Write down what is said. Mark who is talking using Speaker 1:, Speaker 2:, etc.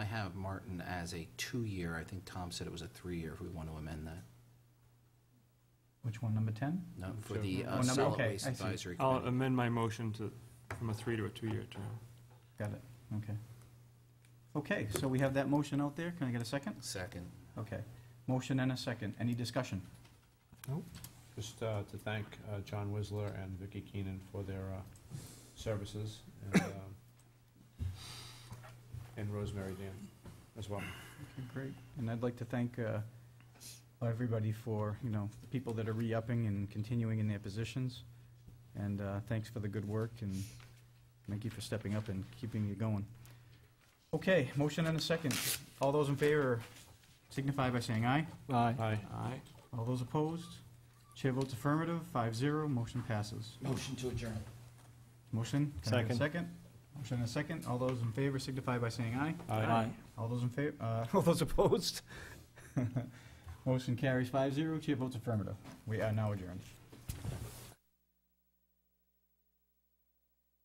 Speaker 1: have Martin as a two-year, I think Tom said it was a three-year, if we want to amend that.
Speaker 2: Which one, number 10?
Speaker 1: No, for the
Speaker 2: Oh,
Speaker 1: uh,
Speaker 2: number-
Speaker 1: solid
Speaker 2: okay,
Speaker 1: waste
Speaker 2: I see.
Speaker 1: advisory
Speaker 3: I'll
Speaker 1: committee.
Speaker 3: amend my motion to, from a three to a two-year term.
Speaker 2: Got it, okay. Okay, so we have that motion out there, can I get a second?
Speaker 1: Second.
Speaker 2: Okay, motion and a second, any discussion?
Speaker 4: Just uh, to thank uh, John Whistler and Vicky Keenan for their uh, services, and, uh, and Rosemary Dan as well.
Speaker 2: Okay, Great, and I'd like to thank uh, everybody for, you know, the people that are re-upping and continuing in their positions, and uh, thanks for the good work, and thank you for stepping up and keeping it going. Okay, motion and a second, all those in favor signify by saying aye.
Speaker 3: Aye.
Speaker 4: Aye.
Speaker 3: Aye.
Speaker 2: All those opposed? Chair votes affirmative, five zero, motion passes.
Speaker 1: Motion to adjourn.
Speaker 2: Motion? can I have a
Speaker 4: Second.
Speaker 2: Second? Motion and a second. All those in favor signify by saying aye.
Speaker 4: Aye.
Speaker 2: All those in favor, uh, all those opposed? Motion carries five zero, chair votes affirmative. We are now adjourned.